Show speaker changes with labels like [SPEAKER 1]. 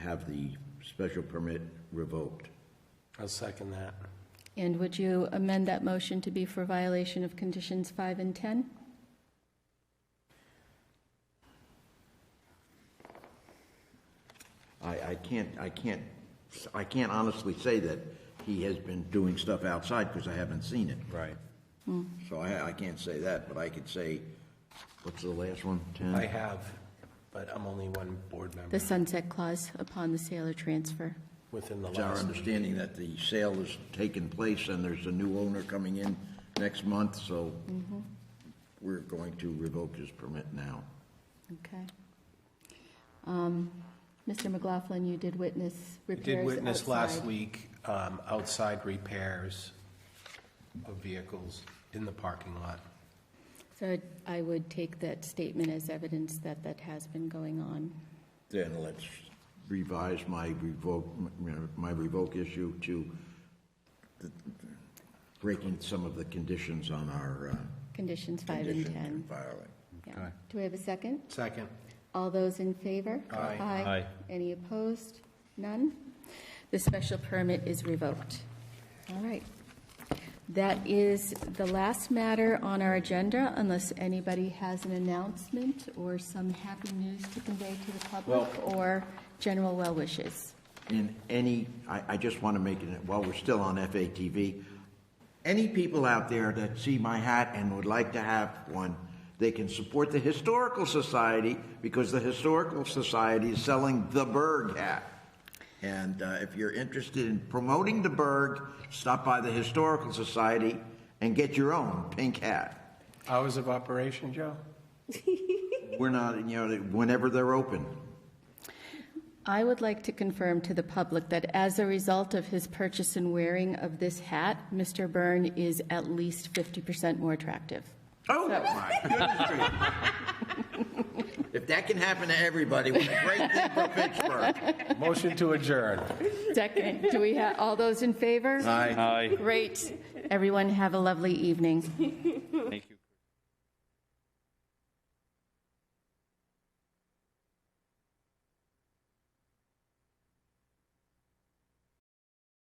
[SPEAKER 1] have the special permit revoked.
[SPEAKER 2] I'll second that.
[SPEAKER 3] And would you amend that motion to be for violation of conditions five and 10?
[SPEAKER 1] I, I can't, I can't, I can't honestly say that he has been doing stuff outside because I haven't seen it.
[SPEAKER 2] Right.
[SPEAKER 1] So I, I can't say that, but I could say, what's the last one? Ten?
[SPEAKER 2] I have, but I'm only one board member
[SPEAKER 3] The sunset clause upon the sale or transfer.
[SPEAKER 2] within the
[SPEAKER 1] It's our
[SPEAKER 2] last.
[SPEAKER 1] understanding that the sale is taking place and there's a new owner coming in next month, so we're going to revoke his permit now.
[SPEAKER 3] Okay. Um, Mr. McLaughlin, you did witness
[SPEAKER 2] We
[SPEAKER 3] repairs outside.
[SPEAKER 2] did witness last week, um, outside repairs of vehicles in the parking lot.
[SPEAKER 3] So I would take that statement as evidence that that has been going on.
[SPEAKER 1] Then let's revise my revoke, my revoke issue to the- breaking some of the conditions on our uh,
[SPEAKER 3] Conditions five and
[SPEAKER 1] condition
[SPEAKER 3] 10.
[SPEAKER 1] filing.
[SPEAKER 3] Yeah.
[SPEAKER 2] Okay.
[SPEAKER 3] Do we have a second?
[SPEAKER 2] Second,
[SPEAKER 3] All those in favor?
[SPEAKER 2] Aye.
[SPEAKER 3] Aye. Any opposed? None? The special permit is revoked. All right. That is the last matter on our agenda, unless anybody has an announcement or some happy news to convey to the public or general well wishes.
[SPEAKER 1] in any, I, I just want to make it, while we're still on FATV, any people out there that see my hat and would like to have one, they can support the Historical Society because the Historical Society is selling the Berg hat. And uh, if you're interested in promoting the Berg, stop by the Historical Society and get your own pink hat.
[SPEAKER 2] hours of operation, Joe?
[SPEAKER 1] We're not, you know, whenever they're open.
[SPEAKER 3] I would like to confirm to the public that as a result of his purchase and wearing of this hat, Mr. Byrne is at least 50% more attractive.
[SPEAKER 1] Oh, my goodness gracious. If that can happen to everybody, what a great thing for Pittsburgh.
[SPEAKER 2] Motion to adjourn.
[SPEAKER 3] Second, do we have, all those in favor?
[SPEAKER 1] Aye.
[SPEAKER 3] Great. Everyone have a lovely evening.